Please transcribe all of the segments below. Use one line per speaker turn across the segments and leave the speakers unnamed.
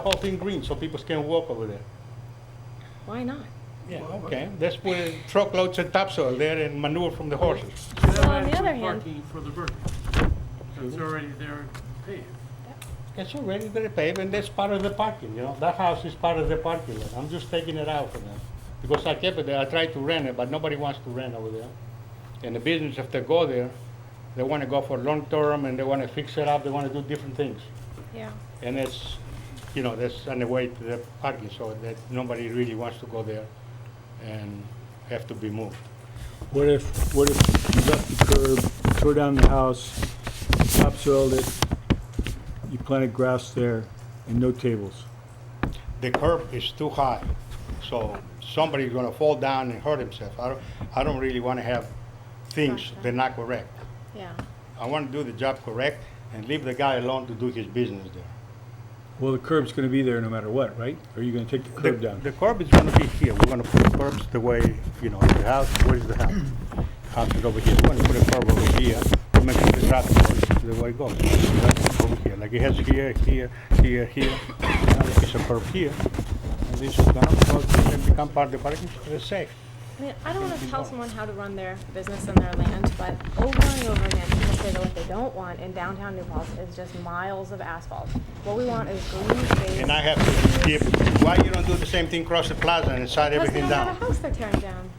whole thing green so people can walk over there.
Why not?
Okay, that's where truckloads and topsoil there and manure from the horses.
So on the other hand-
Parking for the burger. It's already there paved.
It's already very paved and that's part of the parking, you know, that house is part of the parking lot. I'm just taking it out for them. Because I kept it there, I tried to rent it, but nobody wants to rent over there. And the business, if they go there, they wanna go for long term and they wanna fix it up, they wanna do different things.
Yeah.
And it's, you know, that's on the way to the parking, so that nobody really wants to go there and have to be moved.
What if, what if you left the curb, tore down the house, topsoiled it, you planted grass there, and no tables?
the curb is too high, so somebody's gonna fall down and hurt himself. I don't, I don't really wanna have things that are not correct.
Yeah.
I wanna do the job correct and leave the guy alone to do his business there.
Well, the curb's gonna be there no matter what, right? Or are you gonna take the curb
The-
down?
The curb is gonna be here, we're gonna put the curbs the way, you know, the house, where is the house? House is over here, we're gonna put a curb over here to make sure the traffic goes the way it goes. That's Over here, like it has here, here, here, here, another piece of curb here. And this is gonna, go and become part of the parking, it's safe.
I mean, I don't want to tell someone how to run their business and their land, but over and over again, people say that what they don't want in downtown New Paltz is just miles of asphalt. What we want is green space.
And I have to give, why you don't do the same thing across the plaza and shut
Because they
everything
don't have a
down?
house they're tearing down.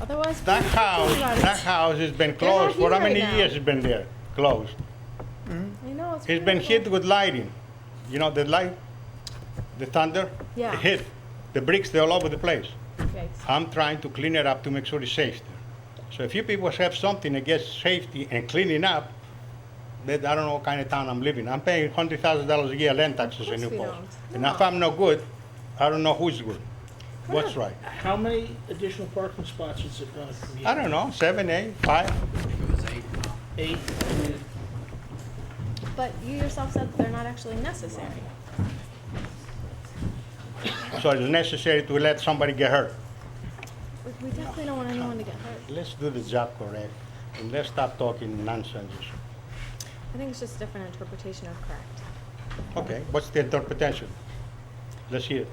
Otherwise.
That
people
house,
complain about it.
that house has been
They're not
closed, for how
here
many
now.
years it's been there, closed?
I know, it's.
It's been hit
beautiful.
with lightning, you know, the light, the thunder?
Yeah.
It hit, the bricks, they're all over the place.
Yikes.
I'm trying to clean it up to make sure it's safe there. So if you people have something against safety and cleaning up, then I don't know what kind of town I'm living. I'm paying hundred thousand dollars a year land taxes in
course
New
we
Paltz.
don't.
And if
No.
I'm no good, I don't know who's good, what's
not-
right.
How many additional parking spots is it gonna be?
I don't know, seven, eight, five.
Eight?
But you yourself said that they're not actually necessary.
So it's necessary to let somebody get hurt.
We- We definitely don't want anyone to get hurt.
Let's do the job correct and let's stop talking nonsense.
I think it's just different interpretation of correct.
Okay, what's the interpretation? Let's hear it.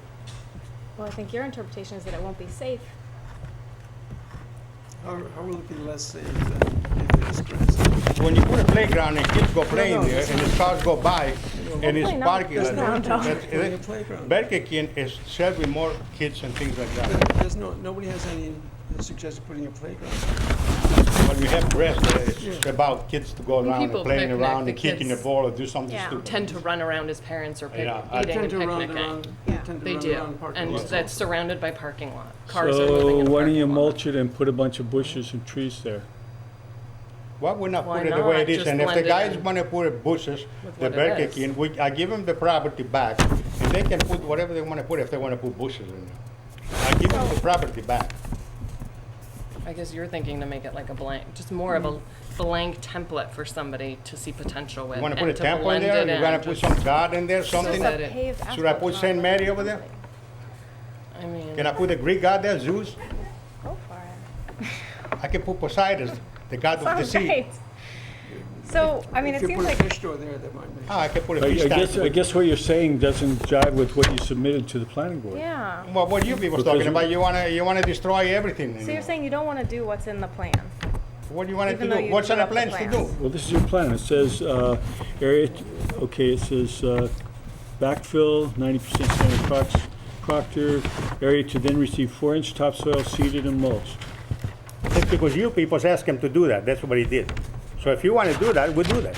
Well, I think your interpretation is that it won't be safe.
How, how will it be less safe than uh, if it is grass?
When you put a playground and kids go
No,
playing
no,
there
it's
and the cars go by and it's
Hopefully not.
parking.
There's no
lot,
dogs
that's-
playing
it-
a playground.
Burger King is serving more kids and things like that.
There- There's no, nobody has any suggestion putting a playground.
When we have rest, uh, it's about kids to go around and
people
playing
picnic,
around
the
and kicking the
kids
ball or do something
Yeah.
stupid.
tend to run around as parents are pic-
Yeah, I-
eating
Tend
and
to run
picnicking.
around,
Yeah.
tend to
They
run
do,
around parking
and
lots.
that's surrounded by parking lot. Cars are living
So
in a
why don't you
parking lot.
mulch it and put a bunch of bushes and trees there?
Why would not
Why
put it the way
not?
it is?
Just
And if the
blend it
guys
in.
wanna put bushes,
With
the
what it
Burger
is.
King, we, I give them the property back, and they can put whatever they wanna put, if they wanna put bushes in there. I give them the property back.
I guess you're thinking to make it like a blank, just more of a
Mm-hmm.
blank template for somebody to see potential with.
You wanna
and
put a
to
temple in
blend
there,
it
you
in,
wanna put
just-
some garden there, something?
that
Just a
it-
paved
Should I
asphalt
put Saint
road.
Mary over there?
I mean,
Can I put a Greek god there, Zeus?
Go for it.
I can put Poseidon, the god of the
Sounds
sea.
great. So, I mean, it
If you
seems
put a
like,
fish store there, that might make.
Ah, I can put a
I I
fish
guess, I
tank.
guess what you're saying doesn't jive with what you submitted to the planning board.
yeah.
Well, what you people
Because
talking
you-
about, you wanna, you wanna destroy everything.
So you're
anymore.
saying you don't want to do what's in the plan?
What do you wanna
even though
do?
you
What's on
drew
the
up the
plans to do?
plans.
Well, this is your plan. It says, uh, area, okay, it says, uh, backfill, ninety percent Senator Crox, Proctor, area to then receive four-inch topsoil seeded and mulched.
It's because you people asked him to do that, that's what he did. So if you wanna do that, we do that,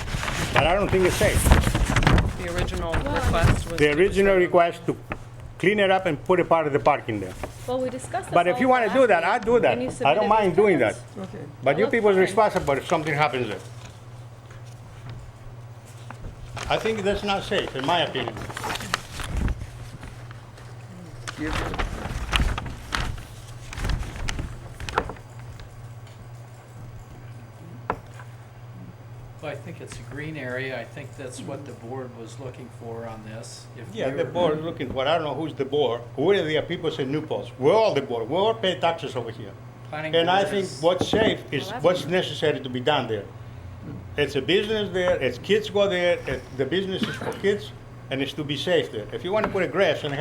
but I don't think it's safe.
the original request was.
The original request to clean it up and put a part of the parking there.
Well, we discussed this
But if
all
you want to do
last
that,
week,
I do that.
and you
I
submitted
don't mind
those
doing that.
plans.
Okay.
But you
That's
people are
fine.
responsible if something happens there. I think that's not safe, in my opinion.
Well, I think it's a green area. I think that's what the board was looking for on this. If
Yeah,
we
the
were-
board is looking for, I don't know who's the board. We're the people in New Paltz. We're all the board. We all pay taxes over here.
Planning
And I
board
think
is-
what's safe is
Well, that's
what's necessary to be done there. It's a business there, it's kids go there, it- the business is for kids, and it's to be safe there. If you want to put a grass and